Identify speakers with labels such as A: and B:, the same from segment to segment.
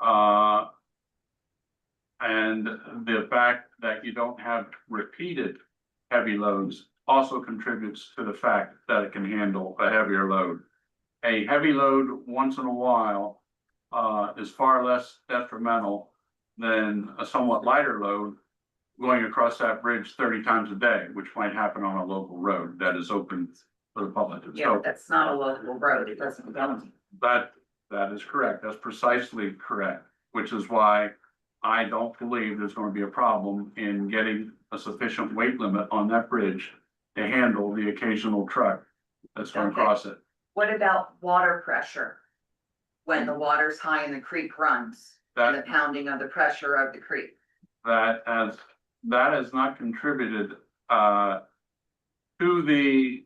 A: Uh. And the fact that you don't have repeated heavy loads also contributes to the fact that it can handle a heavier load. A heavy load once in a while, uh, is far less detrimental than a somewhat lighter load. Going across that bridge thirty times a day, which might happen on a local road that is open for the public.
B: Yeah,
A: So
B: but that's not a local road, it doesn't go.
A: that, that is correct. That's precisely correct, which is why I don't believe there's gonna be a problem in getting a sufficient weight limit on that bridge to handle the occasional truck that's gonna
B: Okay.
A: cross it.
B: What about water pressure? When the water's high and the creek runs, and the
A: That,
B: pounding of the pressure of the creek.
A: that has, that has not contributed, uh, to the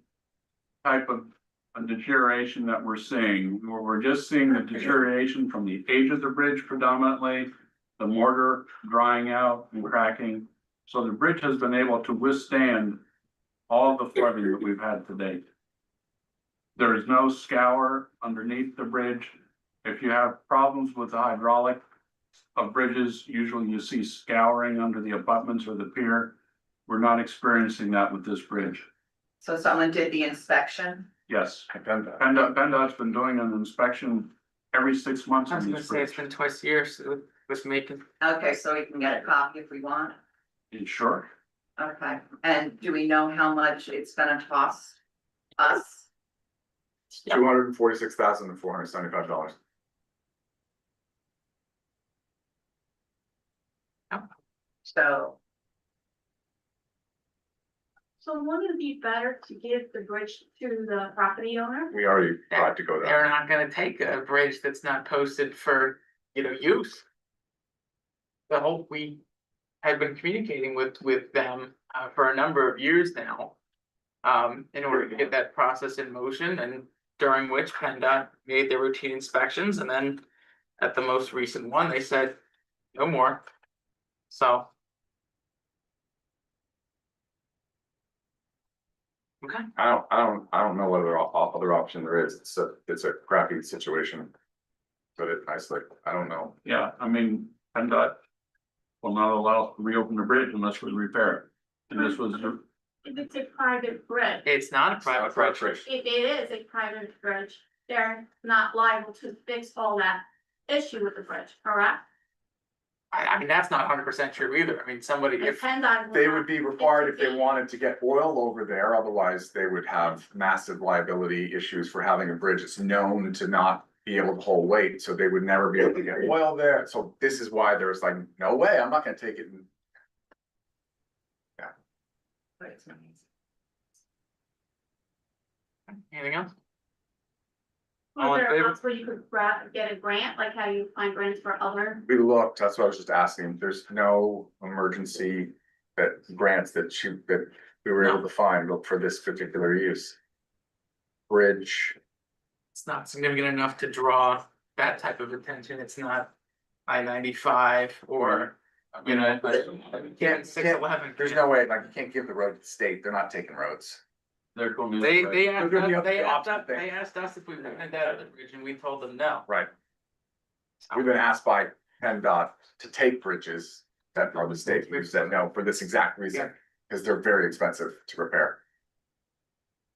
A: type of uh, deterioration that we're seeing. We're, we're just seeing the deterioration from the age of the bridge predominantly. the mortar drying out and cracking. So the bridge has been able to withstand all the flooding that we've had to date. There is no scour underneath the bridge. If you have problems with the hydraulic of bridges, usually you see scouring under the abutments or the pier. We're not experiencing that with this bridge.
B: So someone did the inspection,
A: Yes,
C: I've done that.
A: PennDOT, PennDOT's been doing an inspection every six months
D: I was
A: on
D: gonna
A: these
D: say, it's
A: bridges.
D: been twice a year so with Macon.
B: okay, so we can get a copy if we want,
A: Sure.
B: okay, and do we know how much it's gonna cost us?
C: Two hundred and forty-six thousand and four hundred and seventy-five dollars.
B: So,
E: So wouldn't it be better to give the bridge to the property owner?
C: We already tried to go there.
D: They're not gonna take a bridge that's not posted for, you know, use. The whole, we had been communicating with, with them uh, for a number of years now. Um, in order to get that process in motion and during which PennDOT made their routine inspections and then at the most recent one, they said, no more. So. Okay.
C: I don't, I don't, I don't know what other, o- other option there is. It's a, it's a crappy situation. But it, I like, I don't know.
A: Yeah, I mean, PennDOT will not allow us to reopen the bridge unless we repair it. And this was,
E: If it's a private bridge,
D: It's not a private bridge.
E: if it is a private bridge, they're not liable to fix all that issue with the bridge, correct?
D: I, I mean, that's not hundred percent true either. I mean, somebody,
E: And
D: if,
E: PennDOT will
C: They
E: not
C: would be
E: fix
C: required if
E: the
C: they wanted to get oil over there, otherwise they would have massive liability issues for having a bridge that's known to not be able to hold weight, so they would never be able to get oil there, so this is why there's like, no way, I'm not gonna take it. and-
D: anything else?
E: Was
D: All in
E: there
D: favor?
E: a possible you could gra- get a grant, like how you find grants for other?
C: We looked, that's what I was just asking, there's no emergency that grants that shoot that we were able to find for this particular use. Bridge,
D: It's not significant enough to draw that type of attention. It's not I ninety-five or, you know, but
C: can't-
D: six eleven.
C: there's no way, like, you can't give the road to the state, they're not taking roads.
A: they're going to.
D: They, they asked,
C: gonna be
D: us-
C: up to
D: they
C: the
D: asked,
C: option
D: us-
C: thing.
D: they asked us if we wanted that other bridge and we told them no.
C: Right. We've been asked by PennDOT to take bridges that are the state, we've said no for this exact reason, because they're very expensive to repair.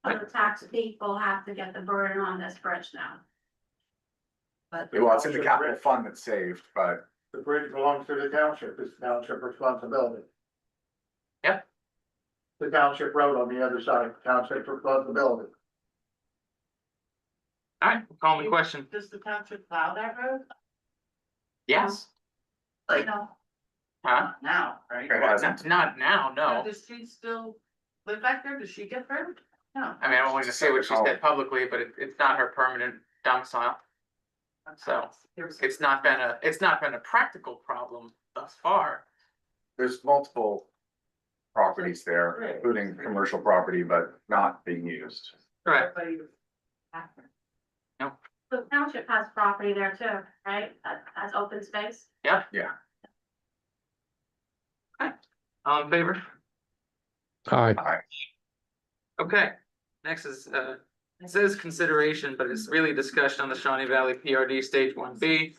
E: Other tax people have to get the burden on this bridge now.
B: but.
C: Well, it's in the capital fund that's saved, but
F: The bridge belongs to the township, it's township responsibility.
D: Yeah.
F: The township road on the other side, township responsibility.
D: Alright, call me question.
F: Does the township plow that road?
D: Yes,
B: Like,
E: No,
D: huh?
B: now, right?
C: it hasn't.
D: Not, not now, no.
B: Does she still live back there? Does she get hurt? No.
D: I mean, I don't want to say what she said publicly, but it, it's not her permanent domicile. So, It's not been a, it's not been a practical problem thus far.
C: There's multiple properties there, including commercial property, but not being used.
D: Right.
E: the township has property there too, right? That, that's open space.
D: All in favor?
G: Aye.
D: Okay, next is, uh, it says consideration, but it's really discussion on the Shawnee Valley PRD Stage One B.